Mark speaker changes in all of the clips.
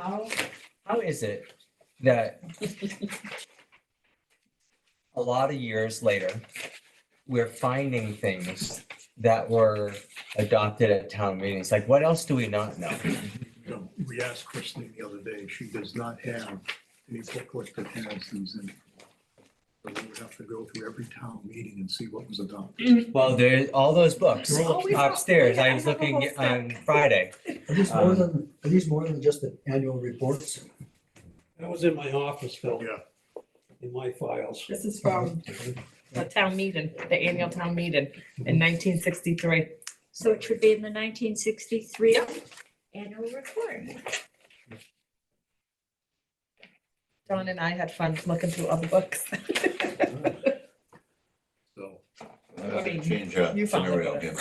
Speaker 1: how, how is it that a lot of years later, we're finding things that were adopted at town meetings? Like, what else do we not know?
Speaker 2: You know, we asked Christine the other day, she does not have any booklet that has these in. it. So we would have to go through every town meeting and see what was adopted.
Speaker 1: Well, there, all those books
Speaker 2: Oh,
Speaker 3: we have-
Speaker 1: upstairs,
Speaker 3: yeah, I
Speaker 1: I was
Speaker 3: have a whole
Speaker 1: looking on
Speaker 3: stack.
Speaker 1: Friday.
Speaker 4: Are these more
Speaker 1: Um,
Speaker 4: than, are these more than just the annual reports?
Speaker 5: That was in my office, Phil,
Speaker 2: Yeah,
Speaker 5: in my files.
Speaker 3: This is from the town meeting, the annual town meeting in nineteen sixty-three.
Speaker 6: So it should be in the nineteen sixty-three annual report.
Speaker 3: John and I had fun looking through other books.
Speaker 2: so
Speaker 7: I'll
Speaker 3: mean,
Speaker 7: Change that
Speaker 3: you found it,
Speaker 7: scenario
Speaker 3: but-
Speaker 7: again.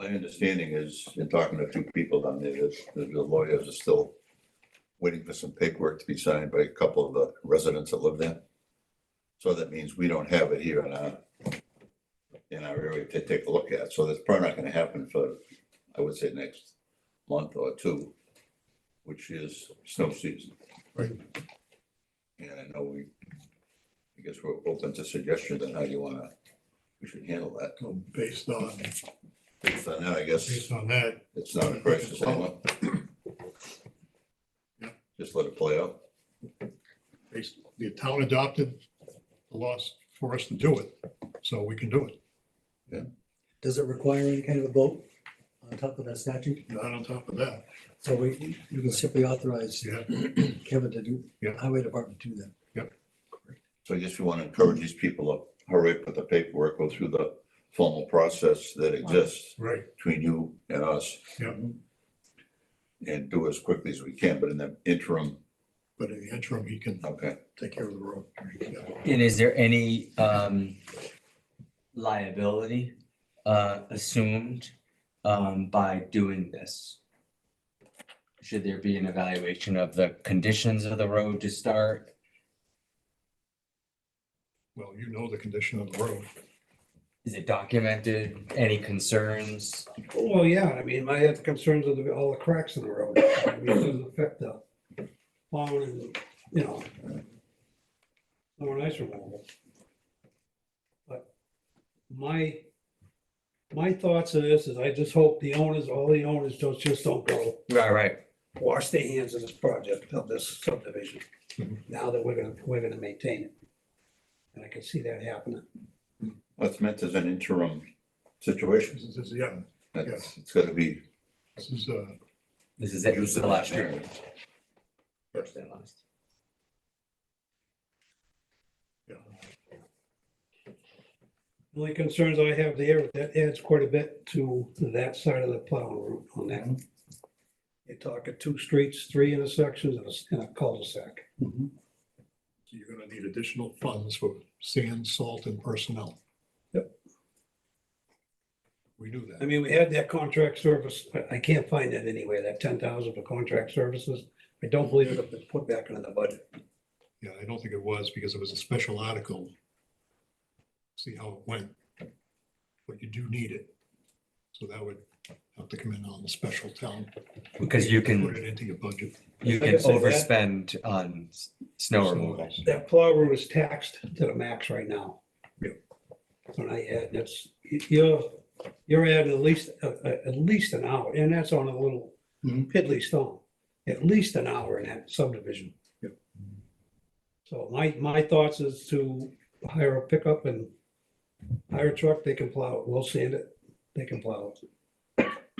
Speaker 7: My understanding is, in talking to a few people down there, that that the lawyers are still waiting for some paperwork to be signed by a couple of the residents that live there. So that means we don't have it here in our, in our area to take a look at. So that's probably not gonna happen for, I would say, next month or two, which is snow season.
Speaker 4: Right.
Speaker 7: And I know we I guess we're open to suggestions on how you wanna, we should handle that.
Speaker 2: so based on,
Speaker 7: Based on that, I guess
Speaker 2: based on that,
Speaker 7: it's not a crisis anymore.
Speaker 2: Yeah.
Speaker 7: Just let it play out.
Speaker 2: based, the town adopted the laws for us to do it, so we can do it.
Speaker 4: Does it require any kind of a vote on top of that statute?
Speaker 2: Not on top of that,
Speaker 4: So we, you can simply authorize
Speaker 2: yeah,
Speaker 4: Kevin to do,
Speaker 2: Yeah.
Speaker 4: highway department to do that.
Speaker 7: So I guess we wanna encourage these people to hurry up with the paperwork, go through the formal process that exists
Speaker 2: right,
Speaker 7: between you and us.
Speaker 2: Yeah.
Speaker 7: And do as quickly as we can, but in the interim,
Speaker 2: but in the interim, he can
Speaker 7: okay,
Speaker 2: take care of the road. Yeah.
Speaker 1: And is there any um liability uh assumed um by doing this? Should there be an evaluation of the conditions of the road to start?
Speaker 2: Well, you know the condition of the road.
Speaker 1: Is it documented? Any concerns?
Speaker 5: Well, yeah, I mean, I had the concerns of the- all the cracks in the road. I mean, It doesn't affect the plowing and, you know. No one ice removal. But my, my thoughts on this is I just hope the owners, all the owners don't, just don't go
Speaker 1: Right, right.
Speaker 5: wash their hands of this project, of this subdivision, now that we're gonna, we're gonna maintain it. And I can see that happening.
Speaker 7: that's meant as an interim situation.
Speaker 2: This is- this is- yeah,
Speaker 7: That's, it's gotta be.
Speaker 2: this is, uh,
Speaker 1: This is it. This is the last year. First and last.
Speaker 5: The only concerns I have there, that adds quite a bit to that side of the plow route on that. You're talking two streets, three intersections, and a s- and a cul-de-sac.
Speaker 2: you're gonna need additional funds for sand, salt and personnel. Yep. We knew
Speaker 5: I
Speaker 2: that.
Speaker 5: mean, we had that contract service, I- I can't find that anywhere, that ten thousand for contract services. I don't believe it was put back into the budget.
Speaker 2: Yeah, I don't think it was because it was a special article. See how it went. But you do need it. So that would have to come in on the special town.
Speaker 1: Because you
Speaker 2: Put
Speaker 1: can,
Speaker 2: it into your budget.
Speaker 1: you
Speaker 5: Like I
Speaker 1: can
Speaker 5: said, that-
Speaker 1: overspend on s- snow removal.
Speaker 5: That plow route is taxed to the max right now.
Speaker 2: Yeah.
Speaker 5: When I add, that's, you're, you're adding at least, uh, uh, at least an hour, and that's on a little
Speaker 2: Mhm.
Speaker 5: piddly stone. At least an hour in that subdivision.
Speaker 2: Yeah.
Speaker 5: So my, my thoughts is to hire a pickup and hire a truck, they can plow it, we'll sand it, they can plow it.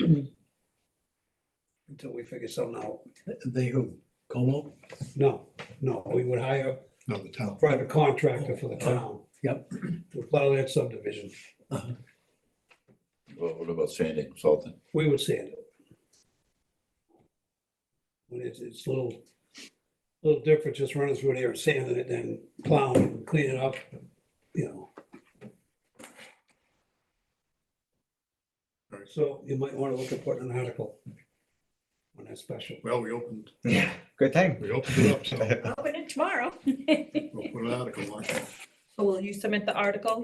Speaker 5: Until we figure something out.
Speaker 4: They who, Como?
Speaker 5: No, no, we would hire
Speaker 2: No, the town.
Speaker 5: private contractor for the town.
Speaker 4: Yep.
Speaker 5: To plow that subdivision.
Speaker 7: What what about sanding, salting?
Speaker 5: We would sand it. But it's, it's a little, little different just running through there and sanding it than plowing, and cleaning up, you know. So you might want to look at putting an article on that special.
Speaker 2: Well, we opened,
Speaker 1: Yeah, good thing.
Speaker 2: we opened it up, so
Speaker 6: Open it tomorrow.
Speaker 2: we'll put an article on it.
Speaker 3: Will you submit the article